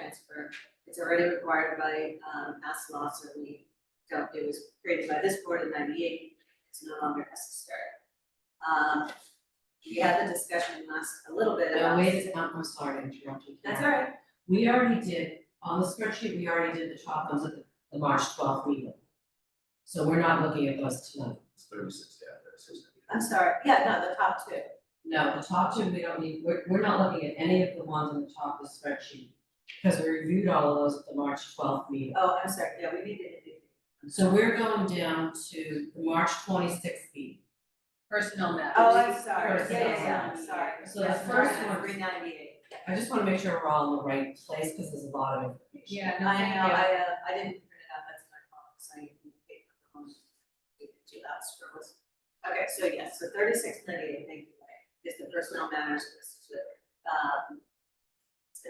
transfer. It's already required by um mass law, so we don't, it was created by this board in ninety-eight, it's no longer necessary. Um, we had the discussion last, a little bit No, about. wait, it's not, I'm sorry, I interrupted you. That's all right, We already did, on the spreadsheet, we already did the top ones at the, the March twelfth meeting. So we're not looking at those tonight. It's thirty-six, yeah, thirty-six. I'm sorry, yeah, no, the top two, No, the top two, we don't need, we're, we're not looking at any of the ones on the top of the spreadsheet. Because we reviewed all of those at the March twelfth meeting. oh, I'm sorry, yeah, we need to. So we're going down to the March twenty-sixth meeting. Personnel matters. Oh, I'm sorry, yeah, First, yeah, yeah, um, I'm sorry. so the Yeah, first one- Three ninety-eight. I just wanna make sure we're all in the right place, because there's a lot of information. Yeah, I no, know, thank I, you. uh, I didn't print it out, that's my fault, so you can take it home. You can do that, sure was. Okay, so yes, so thirty-six ninety-eight, thank you, Mike, is the personnel matters list, um.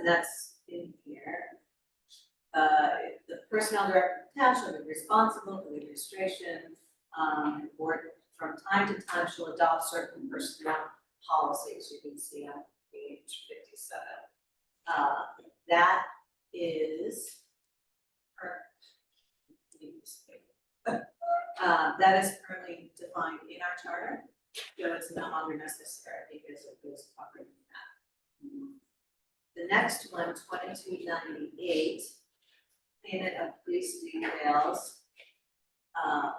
And that's in here. Uh, the personnel director of town shall be responsible for the administration, um, and board from time to time shall adopt certain personnel policies, you can see on page fifty-seven. Uh, that is per- Uh, that is currently defined in our charter, so it's no longer necessary because it goes covered in that. The next one, 2298, payment of police details. Um,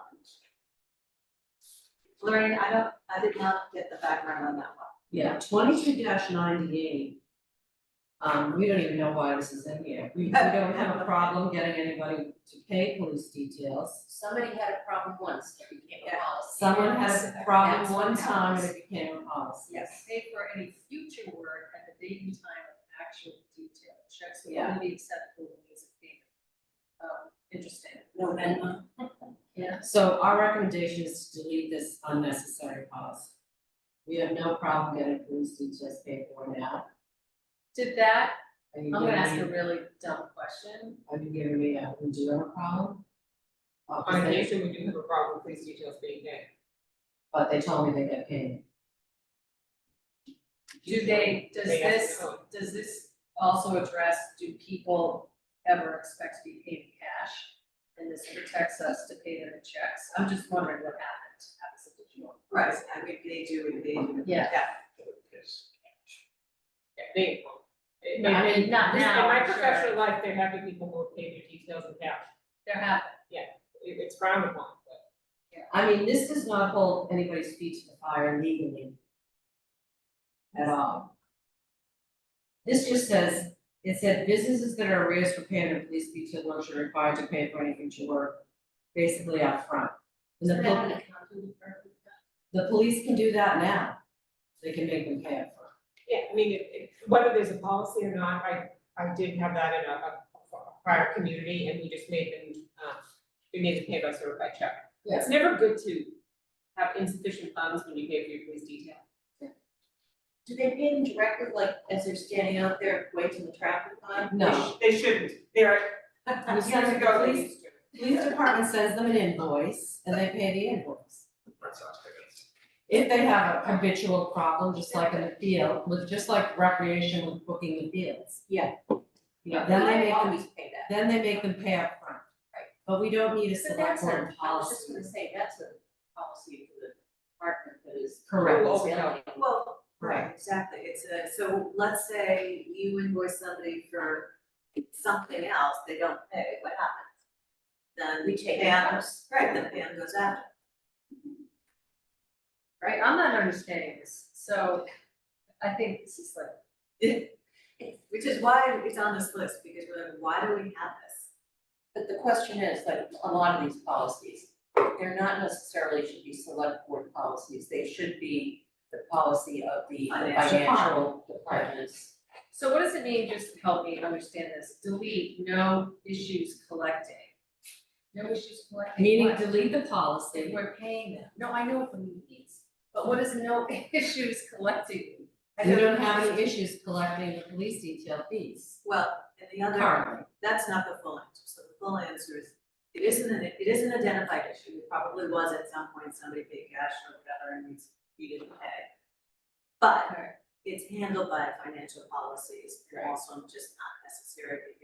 Lorraine, I don't, I did not get the background on that one. Yeah, twenty-two ninety-eight. Um, we don't even know why this is in here. We, we don't have a problem getting anybody to pay police details. Somebody had a problem once, it became a Yeah. policy. Someone had a problem That's one what time and happens. it became a policy. Yes. Pay for any future work at the date and time of actual detail. Checks will Yeah. only be acceptable when it's a payment. Um, interesting. No, Yeah. So our recommendation is to delete this unnecessary policy. We have no problem getting police details paid for now. Did that, Are you I'm gonna ask a giving me- really dumb question. Are you giving me a, do you have a problem? Uh, 'cause they- we do have a problem with police details being paid. But they told me they get paid. Do they, does They ask this, the code. does this also address, do people ever expect to be paid in cash? And this protects us to pay them in checks? I'm just wondering what happened, happens if you want. Right, I mean, they do, they do. Yeah. Yes. Yeah, they, it I may- mean, not in now, my I'm sure. professional life, there have been people who have paid their details in cash, There have, it, it's frowned upon, but. I mean, this does not hold anybody's feet to the fire legally. At all. This just says, it said businesses that are arrears for payment of police detail lunch are required to pay for any future work, basically upfront. And the, Doesn't that have pol- an accounting firm? the police can do that now, they can make them pay upfront. Yeah, I mean, it- it- whether there's a policy or not, I, I did have that in a, a a prior community, and we just made them, um, we made them pay by sort of by check. Yeah. It's never good to have insufficient funds when you pay for your police detail. Do they pay them directly, like, as they're standing out there waiting the traffic line? No. They shouldn't, they're. You send the police, police department sends them an invoice and they pay the invoice. Red Sox tickets. If they have a habitual problem, just like in the field, with, just like recreation with booking the fields. Yeah. You know, then they make them, pay that. then they make them pay upfront. Right. But we don't need a But select that's a, board I was just policy. gonna say, that's a policy for the department that is. Correct, Well, right. right, exactly, it's a, so let's say you invoice somebody for something else, they don't pay, what happens? Then. We take. Pam, right, then Pam goes after. Right, I'm not understanding this, so I think this is like, Which is why it's on this list, because we're like, why do we have this? But the question is, like, a lot of these policies, they're not necessarily should be select board policies, they should be the policy of the Financial financial departments. so what does it mean, just help me understand this, delete, no issues collecting? No issues collecting Meaning what? delete the That policy, we're paying them, no, I know what the meaning is, but what is no issues collecting? I we don't have any issues collecting the police detail fees Well, and the other. currently. That's not the full answer, so the full answer is, it isn't, an it is an identified issue, it probably was at some point, somebody paid cash or whatever, and it's, you didn't pay. But it's handled by financial policies, and also just not necessarily